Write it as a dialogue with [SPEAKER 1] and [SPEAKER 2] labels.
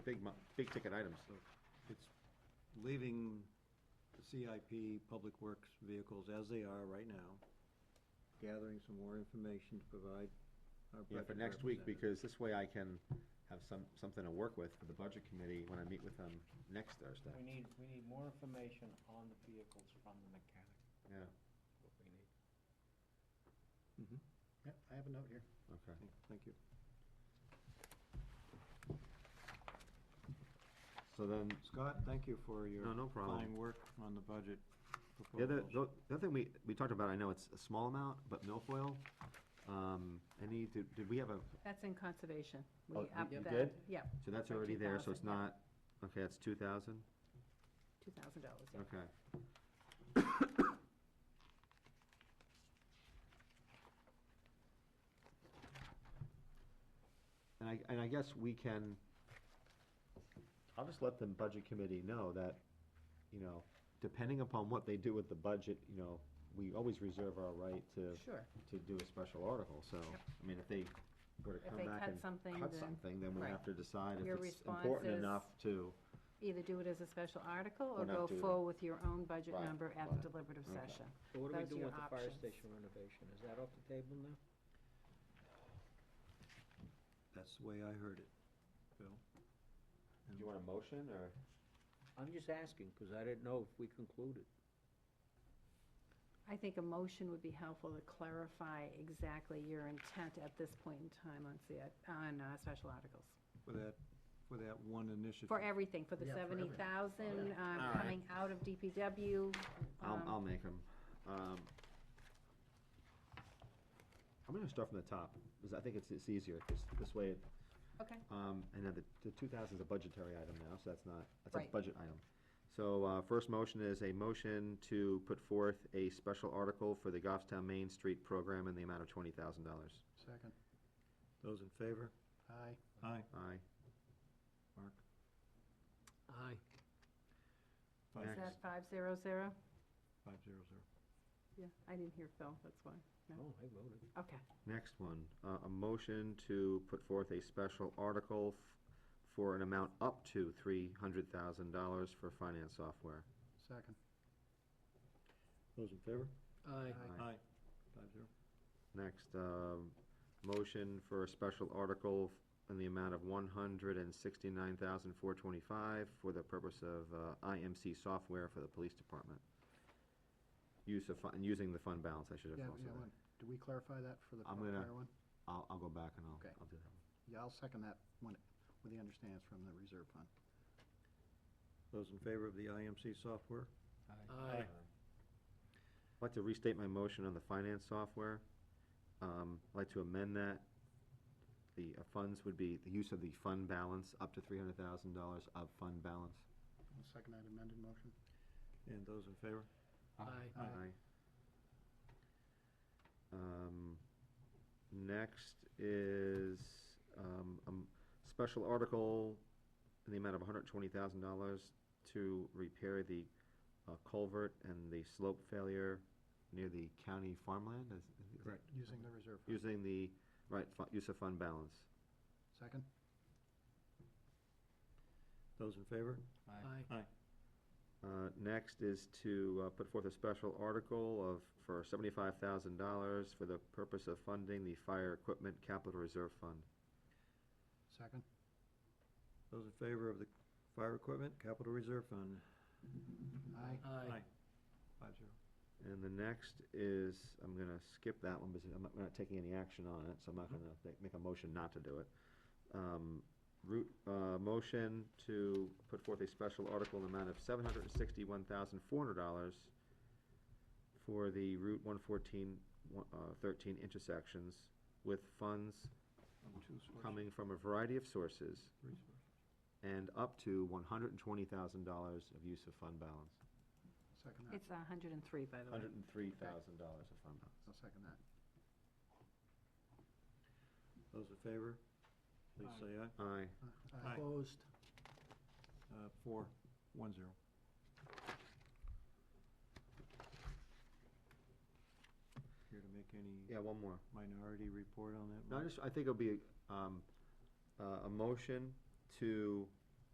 [SPEAKER 1] big, mo- big ticket items.
[SPEAKER 2] So it's leaving the CIP, Public Works vehicles as they are right now, gathering some more information to provide our
[SPEAKER 1] Yeah,
[SPEAKER 2] budget
[SPEAKER 1] for next week,
[SPEAKER 2] representative.
[SPEAKER 1] because this way I can have some, something to work with for the budget committee when I meet with them next Thursday.
[SPEAKER 3] We need, we need more information on the vehicles from the mechanic,
[SPEAKER 1] Yeah,
[SPEAKER 3] what we need.
[SPEAKER 2] Mhm.
[SPEAKER 4] Yeah, I have a note here.
[SPEAKER 1] okay.
[SPEAKER 2] Thank- Thank you.
[SPEAKER 1] So then,
[SPEAKER 2] Scott, thank you for your
[SPEAKER 1] No, no problem.
[SPEAKER 2] fine work on the budget
[SPEAKER 1] the other,
[SPEAKER 2] proposals.
[SPEAKER 1] the the other thing we, we talked about, I know it's a small amount, but milfoil, um, any, did, did we have a,
[SPEAKER 5] That's in conservation. We
[SPEAKER 1] Oh, you-
[SPEAKER 5] upped
[SPEAKER 1] you
[SPEAKER 5] that.
[SPEAKER 1] did?
[SPEAKER 5] Yeah,
[SPEAKER 1] so that's
[SPEAKER 5] Like
[SPEAKER 1] already there, so it's
[SPEAKER 5] 2,000, yeah.
[SPEAKER 1] not, okay, that's two thousand?
[SPEAKER 5] two thousand dollars, yeah.
[SPEAKER 1] Okay. And I, and I guess we can, I'll just let the budget committee know that, you know, depending upon what they do with the budget, you know, we always reserve our right to,
[SPEAKER 5] Sure.
[SPEAKER 1] to do a special article, so,
[SPEAKER 5] Yep.
[SPEAKER 1] I mean, if they were to
[SPEAKER 5] If
[SPEAKER 1] come
[SPEAKER 5] they
[SPEAKER 1] back
[SPEAKER 5] cut
[SPEAKER 1] and
[SPEAKER 5] something,
[SPEAKER 1] cut
[SPEAKER 5] then-
[SPEAKER 1] something, then we
[SPEAKER 5] right.
[SPEAKER 1] have to decide
[SPEAKER 5] Your
[SPEAKER 1] if it's
[SPEAKER 5] response
[SPEAKER 1] important
[SPEAKER 5] is-
[SPEAKER 1] enough to,
[SPEAKER 5] Either do it as a special article
[SPEAKER 1] Or
[SPEAKER 5] or
[SPEAKER 1] not
[SPEAKER 5] go
[SPEAKER 1] do it.
[SPEAKER 5] forward with your own budget
[SPEAKER 1] Right,
[SPEAKER 5] number
[SPEAKER 1] right.
[SPEAKER 5] at the deliberative
[SPEAKER 1] Okay.
[SPEAKER 5] session.
[SPEAKER 3] So what do we
[SPEAKER 5] Those are
[SPEAKER 3] do
[SPEAKER 5] your
[SPEAKER 3] with the fire
[SPEAKER 5] options.
[SPEAKER 3] station renovation? Is that off the table now?
[SPEAKER 2] That's the way I heard it, Bill.
[SPEAKER 1] do you want a motion, or?
[SPEAKER 3] I'm just asking, because I didn't know if we concluded.
[SPEAKER 5] I think a motion would be helpful to clarify exactly your intent at this point in time on CI, on, uh, special articles.
[SPEAKER 2] For that, for that one initiative.
[SPEAKER 5] For everything, for the
[SPEAKER 4] Yeah, for
[SPEAKER 5] seventy
[SPEAKER 4] everything.
[SPEAKER 5] thousand,
[SPEAKER 1] All
[SPEAKER 5] uh,
[SPEAKER 1] right.
[SPEAKER 5] coming out of DPW.
[SPEAKER 1] I'll,
[SPEAKER 5] um,
[SPEAKER 1] I'll make them. Um, I'm gonna start from the top, because I think it's, it's easier, this, this way, it-
[SPEAKER 5] Okay,
[SPEAKER 1] um, and then the, the two thousand is a budgetary item now, so that's not, that's a
[SPEAKER 5] Right.
[SPEAKER 1] budget item. So, uh, first motion is a motion to put forth a special article for the Goffstown Main Street program in the amount of twenty thousand dollars.
[SPEAKER 4] Second.
[SPEAKER 2] Those in favor?
[SPEAKER 4] Aye.
[SPEAKER 2] Aye.
[SPEAKER 1] Aye.
[SPEAKER 2] Mark?
[SPEAKER 3] Aye.
[SPEAKER 2] Five,
[SPEAKER 5] is that five zero zero?
[SPEAKER 2] five zero zero.
[SPEAKER 5] Yeah, I didn't hear Phil, that's why. No.
[SPEAKER 3] Oh, I voted.
[SPEAKER 5] Okay.
[SPEAKER 1] Next one, uh, a motion to put forth a special article f- for an amount up to three hundred thousand dollars for finance software.
[SPEAKER 4] Second.
[SPEAKER 2] Those in favor?
[SPEAKER 3] Aye.
[SPEAKER 1] Aye.
[SPEAKER 2] Aye. Five zero.
[SPEAKER 1] Next, um, motion for a special article in the amount of one hundred and sixty-nine thousand four twenty-five for the purpose of uh, IMC software for the police department. Use of, fun- using the fund balance, I should have
[SPEAKER 4] Yeah,
[SPEAKER 1] also.
[SPEAKER 4] yeah,
[SPEAKER 1] done.
[SPEAKER 4] one. Do we clarify that for the
[SPEAKER 1] I'm
[SPEAKER 4] fire
[SPEAKER 1] gonna-
[SPEAKER 4] one?
[SPEAKER 1] I'll, I'll go back and I'll,
[SPEAKER 4] Okay.
[SPEAKER 1] I'll do that.
[SPEAKER 4] Yeah, I'll second that one, with the understanding it's from the reserve fund.
[SPEAKER 2] Those in favor of the IMC software?
[SPEAKER 1] I'd like to restate my motion on the finance software. Um, I'd like to amend that. The uh, funds would be, the use of the fund balance, up to three hundred thousand dollars of fund balance.
[SPEAKER 4] I'll second that amended motion.
[SPEAKER 2] And those in favor?
[SPEAKER 3] Aye.
[SPEAKER 4] Aye.
[SPEAKER 1] Um, next is, um, um, special article in the amount of hundred twenty thousand dollars to repair the uh, culvert and the slope failure near the county farmland, is, is it-
[SPEAKER 2] Correct.
[SPEAKER 4] Using the reserve fund.
[SPEAKER 1] Using the, right, fu- use of fund balance.
[SPEAKER 4] Second?
[SPEAKER 2] Those in favor?
[SPEAKER 3] Aye.
[SPEAKER 1] Uh, Next is to uh, put forth a special article of, for seventy-five thousand dollars for the purpose of funding the Fire Equipment Capital Reserve Fund.
[SPEAKER 4] Second?
[SPEAKER 2] Those in favor of the fire equipment capital reserve fund?
[SPEAKER 4] Aye.
[SPEAKER 2] Five zero.
[SPEAKER 1] And the next is, I'm gonna skip that one because I'm not, we're not taking any action on it, so I'm not
[SPEAKER 2] Mhm.
[SPEAKER 1] gonna make- make a motion not to do it. Um, Root, uh, motion to put forth a special article in the amount of seven hundred and sixty-one thousand, four hundred dollars for the Route one fourteen, uh, thirteen intersections with funds
[SPEAKER 2] Two sources.
[SPEAKER 1] coming from a variety of sources
[SPEAKER 2] Three sources.
[SPEAKER 1] and up to one hundred and twenty thousand dollars of use of fund balance.
[SPEAKER 4] Second that.
[SPEAKER 5] It's a hundred and three, by the way.
[SPEAKER 1] Hundred and three thousand dollars of fund balance.
[SPEAKER 4] I'll second that.
[SPEAKER 2] Those in favor? Please
[SPEAKER 3] Aye.
[SPEAKER 2] say aye.
[SPEAKER 1] Aye.
[SPEAKER 4] Uh,
[SPEAKER 2] Aye.
[SPEAKER 3] Opposed?
[SPEAKER 2] Uh, four, one zero. Here to make any
[SPEAKER 1] Yeah, one more.
[SPEAKER 2] minority report on that?
[SPEAKER 1] No, I
[SPEAKER 2] Mark?
[SPEAKER 1] just, I think it'll be, um, uh, a motion to